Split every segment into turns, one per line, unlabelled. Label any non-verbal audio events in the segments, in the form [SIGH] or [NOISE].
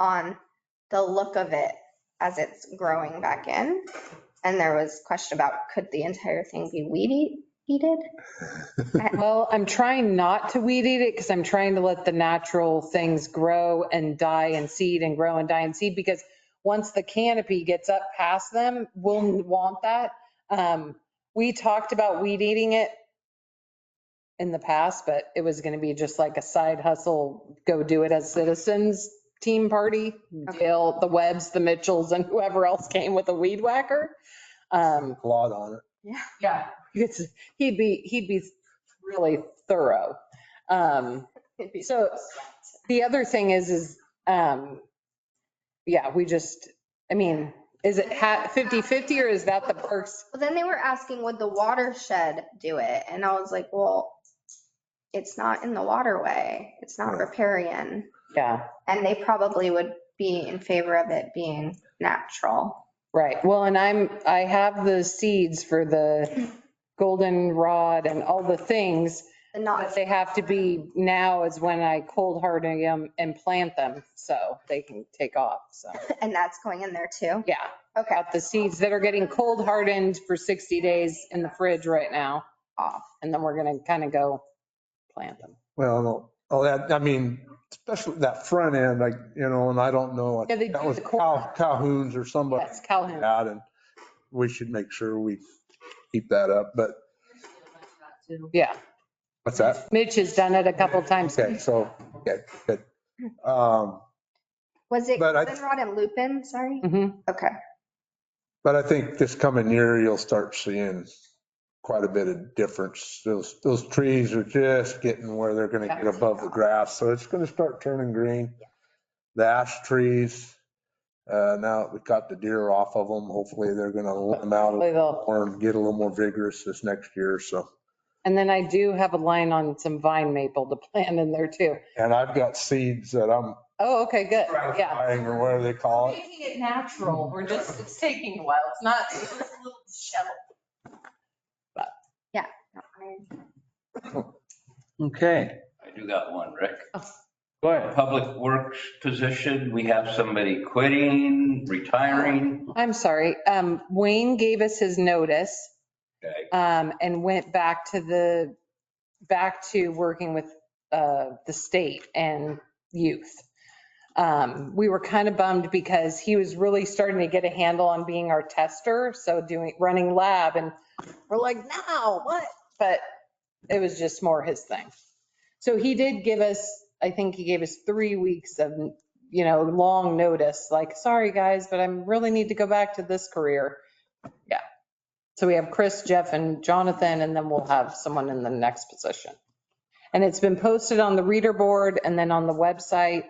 on the look of it as it's growing back in. And there was question about could the entire thing be weed eat- eated?
Well, I'm trying not to weed eat it because I'm trying to let the natural things grow and die and seed and grow and die and seed because once the canopy gets up past them, we'll want that. Um, we talked about weed eating it in the past, but it was going to be just like a side hustle, go do it as citizens team party. Dale, the Webbs, the Mitchells and whoever else came with a weed whacker. Um,
Clawed on it.
yeah, it's, he'd be, he'd be really thorough. Um,
It'd be
So- the other thing is, is, um, yeah, we just, I mean, is it ha- 50/50 or is that the perks?
Well, then they were asking, would the watershed do it? And I was like, well, it's not in the waterway. It's not
Right.
riparian.
Yeah,
And they probably would be in favor of it being natural.
right. Well, and I'm, I have the seeds for the golden rod and all the things,
And not,
but they have to be, now is when I cold harden them and plant them, so they can take off, so,
and that's going in there too.
yeah.
Okay,
Got the seeds that are getting cold hardened for 60 days in the fridge right now off, and then we're gonna kind of go plant them.
Well, no, oh, that, I mean, especially that front end, like, you know, and I don't know.
Yeah, they
That
do
was
the corn.
Cal- Calhoun's or somebody.
That's Calhoun.
Out and we should make sure we keep that up, but
Yeah,
what's that?
Mitch has done it a couple times.
Okay, so, yeah, good. Um,
was it
But I- Mm.
goldenrod and lupin? Sorry.
Mhm.
Okay.
but I think this coming year, you'll start seeing quite a bit of difference. Those, those trees are just getting where they're gonna get above the grass, so it's gonna start turning green. The ash trees, uh, now that we got the deer off of them, hopefully they're gonna let them out a
Hopefully
little
they'll-
more and get a little more vigorous this next year, so.
And then I do have a line on some vine maple to plant in there too.
And I've got seeds that I'm
Oh, okay, good. Yeah.
gratifying or whatever they call it.
Making it natural, we're just, it's taking a while, it's not, it's a little disheveled.
Okay,
I do got one, Rick.
go ahead.
Public Works position, we have somebody quitting, retiring.
I'm sorry. Um, Wayne gave us his notice,
Okay,
um, and went back to the, back to working with, uh, the state and youth. Um, we were kind of bummed because he was really starting to get a handle on being our tester. So doing, running lab and we're like, no, what? But it was just more his thing. So he did give us, I think he gave us three weeks of, you know, long notice, like, sorry guys, but I really need to go back to this career. Yeah. So we have Chris, Jeff and Jonathan, and then we'll have someone in the next position. And it's been posted on the reader board and then on the website.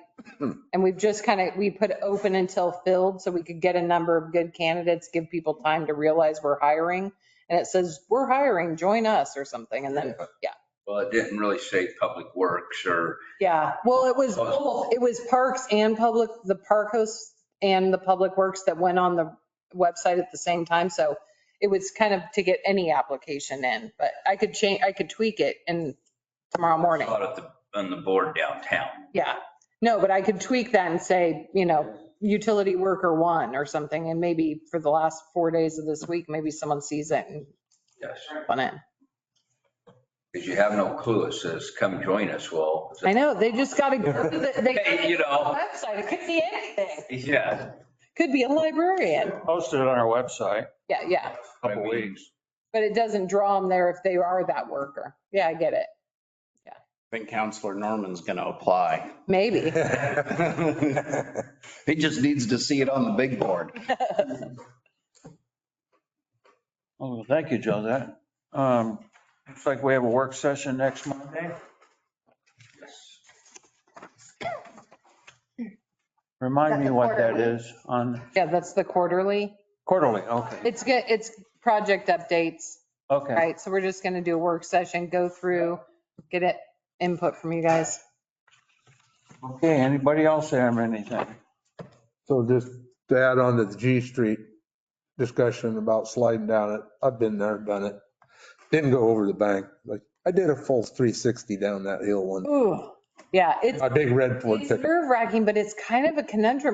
And we've just kind of, we put open until filled so we could get a number of good candidates, give people time to realize we're hiring. And it says, we're hiring, join us or something. And then, yeah.
well, it didn't really say Public Works or,
Yeah, well, it was,
Oh.
both. it was parks and public, the park hosts and the public works that went on the website at the same time. So it was kind of to get any application in, but I could change, I could tweak it and tomorrow morning.
saw it at the- on the board downtown.
Yeah, no, but I could tweak that and say, you know, utility worker one or something. And maybe for the last four days of
Hmm.
this week, maybe someone sees it and
Yes,
put it.
because you have no clue. It says, come join us. Well,
I know, they just got to,
[LAUGHS]
they.
Hey, you know.
Website, it could be anything.
yeah.
Could be a librarian.
Posted it on our website,
Yeah, yeah.
couple
I mean,
weeks.
But it doesn't draw them there if they are that worker. Yeah, I get it.
I think Counselor Norman's going to apply. [LAUGHS]
Maybe.
He just needs to see it on the big board.
Oh, thank you, Josette. Um, looks like we have a work session next Monday. Remind me what that is on
Yeah, that's the quarterly.
quarterly, okay,
It's good, it's project updates,
okay.
right? So we're just going to do a work session, go through, get it, input from you guys.
Okay, anybody else have anything?
So just to add on to the G Street discussion about sliding down it, I've been there, done it. Didn't go over the bank, like I did a full 360 down that hill one.
Ooh, Yeah, Oh, it's
A big redwood
it's
thicket.
nerve wracking, but it's kind of a conundrum